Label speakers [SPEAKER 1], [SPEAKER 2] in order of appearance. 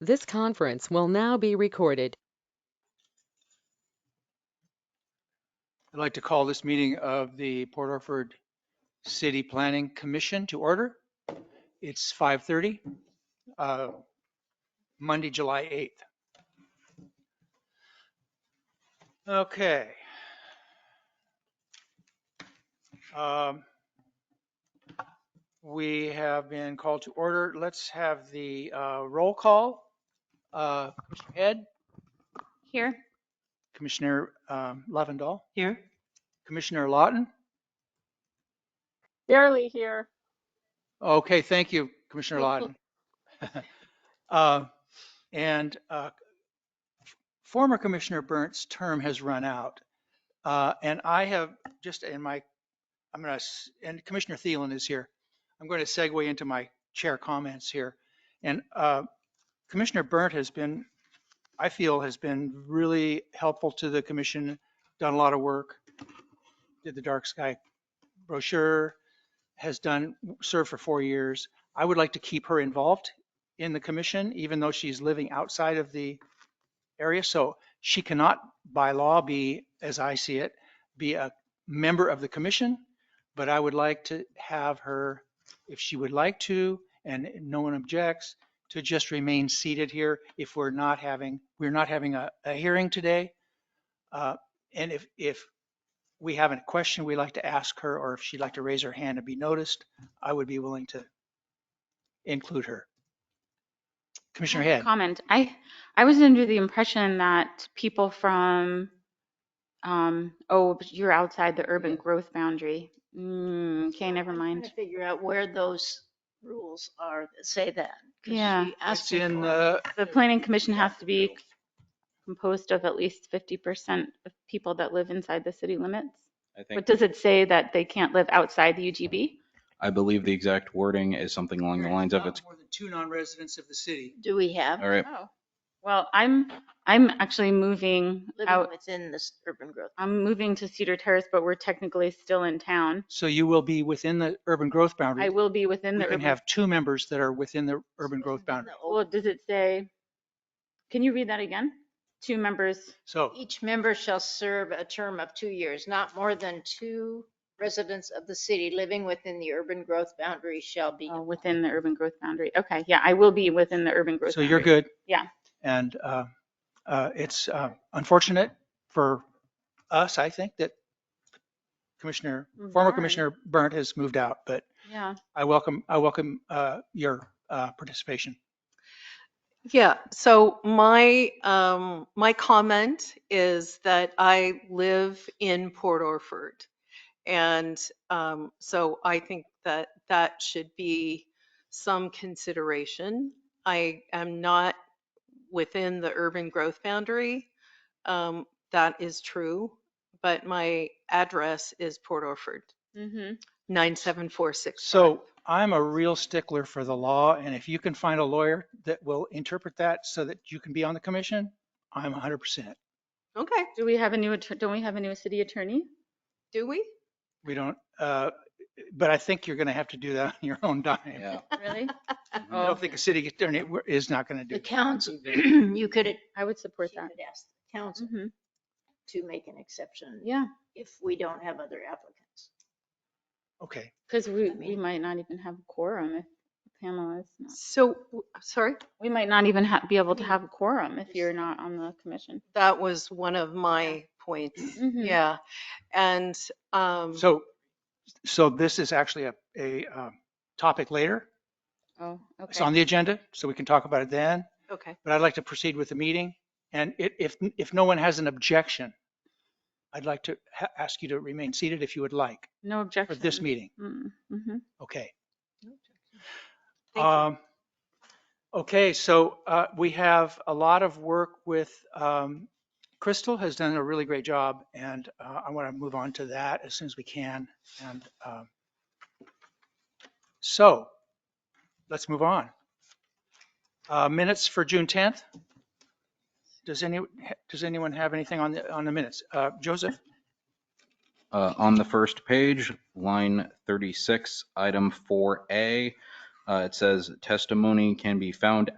[SPEAKER 1] This conference will now be recorded.
[SPEAKER 2] I'd like to call this meeting of the Port Orford City Planning Commission to order. It's 5:30, uh, Monday, July 8th. Okay. Um, We have been called to order. Let's have the uh, roll call. Uh, Commissioner Head,
[SPEAKER 3] Here.
[SPEAKER 2] Commissioner um, Lovendall,
[SPEAKER 3] Here.
[SPEAKER 2] Commissioner Lawton.
[SPEAKER 4] Barely here.
[SPEAKER 2] Okay, thank you, Commissioner Lawton. Uh, And uh, former Commissioner Burnt's term has run out. Uh, And I have just in my, I'm going to, and Commissioner Thielen is here. I'm going to segue into my chair comments here. And uh, Commissioner Burnt has been, I feel, has been really helpful to the commission, done a lot of work, did the dark sky brochure, has done, served for four years. I would like to keep her involved in the commission, even though she's living outside of the area. So she cannot, by law, be, as I see it, be a member of the commission. But I would like to have her, if she would like to, and no one objects, to just remain seated here if we're not having, we're not having a, a hearing today. Uh, And if, if we have a question we'd like to ask her, or if she'd like to raise her hand and be noticed, I would be willing to include her. Commissioner Head.
[SPEAKER 3] Comment. I, I was under the impression that people from, um, oh, but you're outside the urban growth boundary. Mm, okay, never
[SPEAKER 4] I'm trying
[SPEAKER 3] mind.
[SPEAKER 4] to Figure out where those rules are that say that. 'cause
[SPEAKER 3] Yeah.
[SPEAKER 4] she asked
[SPEAKER 2] It's
[SPEAKER 4] me
[SPEAKER 2] in uh,
[SPEAKER 4] for
[SPEAKER 2] the,
[SPEAKER 3] The planning commission has to be composed of at least 50% of people that live inside the city limits.
[SPEAKER 5] I think,
[SPEAKER 3] But does it say that they can't live outside the UGB?
[SPEAKER 5] I believe the exact wording is something along the lines of
[SPEAKER 2] Not
[SPEAKER 5] it's,
[SPEAKER 2] More than two non-residents of the city.
[SPEAKER 4] it. Do we have
[SPEAKER 5] all right,
[SPEAKER 3] Oh, well, I'm, I'm actually moving
[SPEAKER 4] living
[SPEAKER 3] out.
[SPEAKER 4] within this urban growth?
[SPEAKER 3] I'm moving to Cedar Terrace, but we're technically still in town.
[SPEAKER 2] So you will be within the urban growth boundary.
[SPEAKER 3] I will be within
[SPEAKER 2] We
[SPEAKER 3] the
[SPEAKER 2] can
[SPEAKER 3] urban.
[SPEAKER 2] have two members that are within the urban growth
[SPEAKER 4] Isn't
[SPEAKER 2] boundary.
[SPEAKER 4] the old-
[SPEAKER 3] Well, does it say, can you read that again? Two members,
[SPEAKER 2] So
[SPEAKER 4] Each member shall serve a term of two years, not more than two residents of the city living within the urban growth boundary shall be.
[SPEAKER 3] uh, within the urban growth boundary. Okay, yeah, I will be within the urban growth.
[SPEAKER 2] So you're
[SPEAKER 3] boundary.
[SPEAKER 2] good.
[SPEAKER 3] Yeah.
[SPEAKER 2] And uh, uh, it's uh, unfortunate for us, I think, that Commissioner, former
[SPEAKER 3] Burnt.
[SPEAKER 2] Commissioner Burnt has moved out, but
[SPEAKER 3] Yeah,
[SPEAKER 2] I welcome, I welcome uh, your uh, participation.
[SPEAKER 6] Yeah, so my, um, my comment is that I live in Port Orford. And, um, so I think that that should be some consideration. I am not within the urban growth boundary. Um, that is true, but my address is Port Orford,
[SPEAKER 3] mhm.
[SPEAKER 6] 97465.
[SPEAKER 2] So I'm a real stickler for the law, and if you can find a lawyer that will interpret that so that you can be on the commission, I'm 100%.
[SPEAKER 6] Okay,
[SPEAKER 3] Do we have a new, attor- don't we have a new city attorney?
[SPEAKER 6] do we?
[SPEAKER 2] We don't, uh, but I think you're going to have to do that on your own dime.
[SPEAKER 5] yeah.
[SPEAKER 3] Really?
[SPEAKER 2] I
[SPEAKER 3] Oh,
[SPEAKER 2] don't think a city attorney is not going to do
[SPEAKER 4] The
[SPEAKER 2] that.
[SPEAKER 4] council, you could, you
[SPEAKER 3] I would support
[SPEAKER 4] could
[SPEAKER 3] that.
[SPEAKER 4] ask the council
[SPEAKER 3] Mhm.
[SPEAKER 4] to make an exception
[SPEAKER 3] Yeah,
[SPEAKER 4] if we don't have other applicants.
[SPEAKER 2] Okay.
[SPEAKER 3] because we,
[SPEAKER 4] I
[SPEAKER 3] we
[SPEAKER 4] mean-
[SPEAKER 3] might not even have a quorum if Pamela is not.
[SPEAKER 6] So, w- sorry?
[SPEAKER 3] We might not even ha be able to
[SPEAKER 4] Yeah.
[SPEAKER 3] have a quorum if
[SPEAKER 4] Just-
[SPEAKER 3] you're not on the commission.
[SPEAKER 6] That was one of my points.
[SPEAKER 3] Mhm.
[SPEAKER 6] Yeah. And, um,
[SPEAKER 2] So, so this is actually a, a um, topic later.
[SPEAKER 3] Oh,
[SPEAKER 2] It's on
[SPEAKER 3] okay.
[SPEAKER 2] the agenda, so we can talk about it then.
[SPEAKER 6] okay,
[SPEAKER 2] But I'd like to proceed with the meeting. And i- if, if no one has an objection, I'd like to ha- ask you to remain seated if you would like
[SPEAKER 3] No
[SPEAKER 2] for
[SPEAKER 3] objection.
[SPEAKER 2] this meeting.
[SPEAKER 3] Mm-hmm.
[SPEAKER 2] Okay.
[SPEAKER 6] Thank you.
[SPEAKER 2] Um, Okay, so uh, we have a lot of work with, um, Crystal has done a really great job, and uh, I want to move on to that as soon as we can. And um, so, let's move on. Uh, Minutes for June 10th? Does any, does anyone have anything on the, on the minutes? Uh, Joseph?
[SPEAKER 5] Uh, on the first page, line 36, item 4A, uh, it says testimony can be found